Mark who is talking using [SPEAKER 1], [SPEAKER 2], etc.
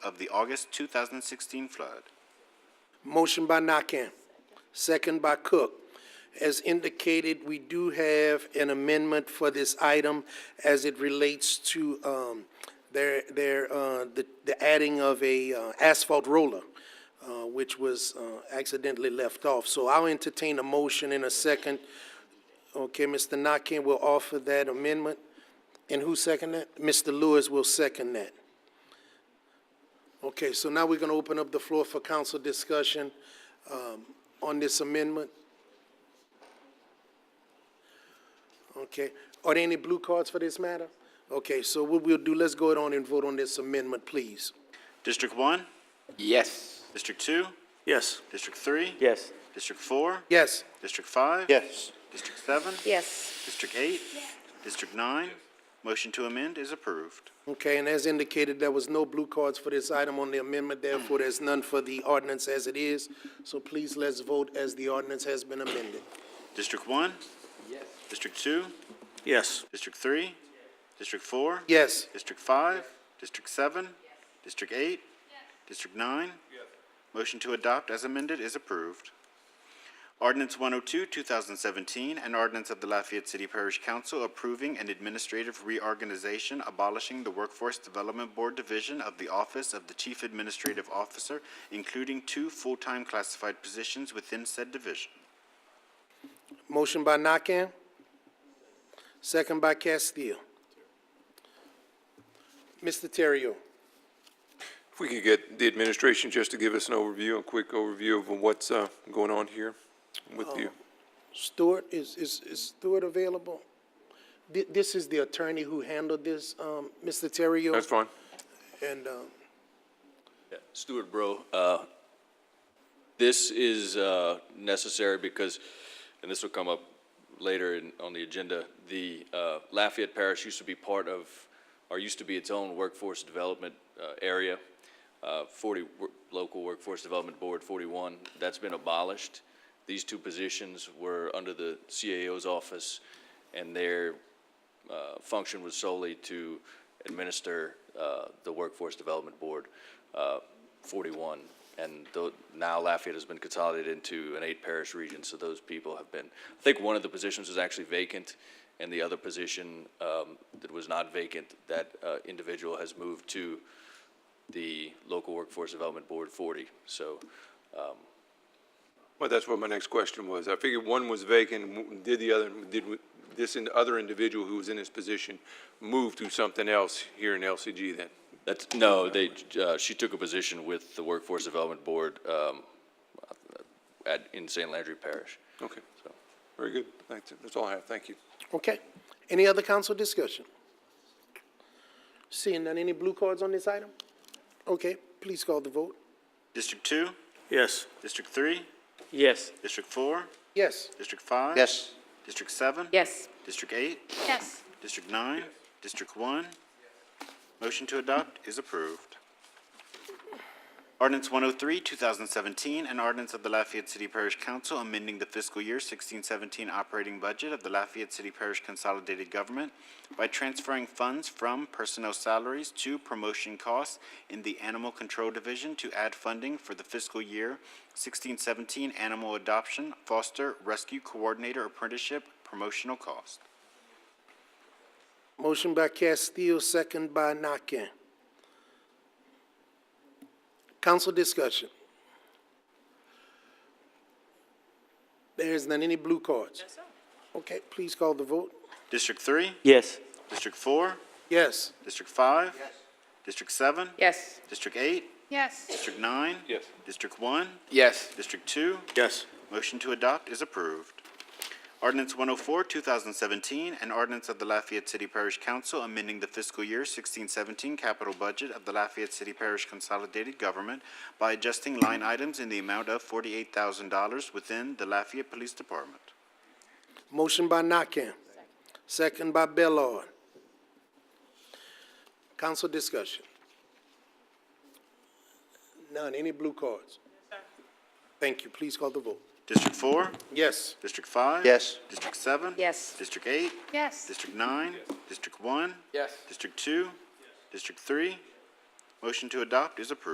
[SPEAKER 1] of the August 2016 flood.
[SPEAKER 2] Motion by Nakam, second by Cook. As indicated, we do have an amendment for this item as it relates to, um, their, their, uh, the, the adding of a uh, asphalt roller, uh, which was, uh, accidentally left off. So I'll entertain a motion in a second. Okay, Mr. Nakam will offer that amendment. And who second that? Mr. Lewis will second that. Okay, so now we're going to open up the floor for council discussion um, on this amendment. Okay, are there any blue cards for this matter? Okay, so what we'll do, let's go ahead on and vote on this amendment, please.
[SPEAKER 1] District 1,
[SPEAKER 3] Yes.
[SPEAKER 1] District 2,
[SPEAKER 2] Yes.
[SPEAKER 1] District 3,
[SPEAKER 3] Yes.
[SPEAKER 1] District 4,
[SPEAKER 2] Yes,
[SPEAKER 1] District 5,
[SPEAKER 3] Yes.
[SPEAKER 1] District 7,
[SPEAKER 4] Yes.
[SPEAKER 1] District 8, District 9. Motion to amend is approved.
[SPEAKER 2] okay, and as indicated, there was no blue cards for this item on the amendment, therefore there's none for the ordinance as it is. So please, let's vote as the ordinance has been amended.
[SPEAKER 1] District 1, District 2,
[SPEAKER 3] Yes.
[SPEAKER 1] District 3, District 4,
[SPEAKER 2] Yes,
[SPEAKER 1] District 5, District 7, District 8, District 9. Motion to adopt as amended is approved. Ordinance 102, 2017, an ordinance of the Lafayette City Parish Council approving an administrative reorganization abolishing the Workforce Development Board Division of the Office of the Chief Administrative Officer, including two full-time classified positions within said division.
[SPEAKER 2] motion by Nakam, second by Castile. Mr. Terrio.
[SPEAKER 5] If we could get the administration just to give us an overview, a quick overview of what's uh, going on here with you.
[SPEAKER 2] Stewart, is, is, is Stewart available? Thi- This is the attorney who handled this, um, Mr. Terrio.
[SPEAKER 5] That's fine.
[SPEAKER 2] And, um,
[SPEAKER 6] Stuart Bro, uh, this is uh, necessary because, and this will come up later in- on the agenda, the uh, Lafayette Parish used to be part of, or used to be its own workforce development uh, area, uh, 40, wor- local workforce development board 41, that's been abolished. These two positions were under the CAO's office, and they're uh, function was solely to administer uh, the Workforce Development Board uh, 41. And tho- now Lafayette has been consolidated into an eight-parish region, so those people have been, I think one of the positions was actually vacant, and the other position um, that was not vacant, that uh, individual has moved to the local Workforce Development Board 40. So
[SPEAKER 5] Well, that's what my next question was. I figured one was vacant, w- did the other, did w- this in- other individual who was in this position move to something else here in LCG then?
[SPEAKER 6] That's, no, they, uh, she took a position with the Workforce Development Board um, at, in St. Landry Parish.
[SPEAKER 5] Okay, so, very good. Thanks. That's all I have. Thank you.
[SPEAKER 2] okay, any other council discussion? Seeing none, any blue cards on this item? Okay, please call the vote.
[SPEAKER 1] District 2,
[SPEAKER 3] Yes.
[SPEAKER 1] District 3,
[SPEAKER 3] Yes.
[SPEAKER 1] District 4,
[SPEAKER 2] Yes,
[SPEAKER 1] District 5.
[SPEAKER 3] Yes.
[SPEAKER 1] District 7.
[SPEAKER 4] Yes.
[SPEAKER 1] District 8.
[SPEAKER 4] Yes.
[SPEAKER 1] District nine? District one? Motion to adopt is approved. Ordinance one oh three, two thousand seventeen, an ordinance of the Lafayette City Parish Council amending the fiscal year sixteen seventeen operating budget of the Lafayette City Parish Consolidated Government by transferring funds from personnel salaries to promotion costs in the Animal Control Division to add funding for the fiscal year sixteen seventeen animal adoption, foster, rescue coordinator apprenticeship, promotional cost.
[SPEAKER 2] motion by Castile, second by Nakam. Council discussion. There is none, any blue cards? Okay, please call the vote.
[SPEAKER 1] District three?
[SPEAKER 3] Yes.
[SPEAKER 1] District four?
[SPEAKER 2] Yes.
[SPEAKER 1] District five? District seven?
[SPEAKER 4] Yes.
[SPEAKER 1] District eight?
[SPEAKER 4] Yes.
[SPEAKER 1] District nine?
[SPEAKER 5] Yes.
[SPEAKER 1] District one?
[SPEAKER 3] Yes.
[SPEAKER 1] District two?
[SPEAKER 3] Yes.
[SPEAKER 1] Motion to adopt is approved. Ordinance 104, 2017, an ordinance of the Lafayette City Parish Council amending the fiscal year 1617 capital budget of the Lafayette City Parish Consolidated Government by adjusting line items in the amount of $48,000 within the Lafayette Police Department.
[SPEAKER 2] Motion by Nakam, second by Bellard. Council discussion. None, any blue cards? Thank you, please call the vote.
[SPEAKER 1] District 4?
[SPEAKER 2] Yes.
[SPEAKER 1] District 5?
[SPEAKER 3] Yes.
[SPEAKER 1] District 7?
[SPEAKER 4] Yes.
[SPEAKER 1] District 8?
[SPEAKER 4] Yes.
[SPEAKER 1] District nine? District one?
[SPEAKER 3] Yes.
[SPEAKER 1] District two? District three? Motion to adopt is approved.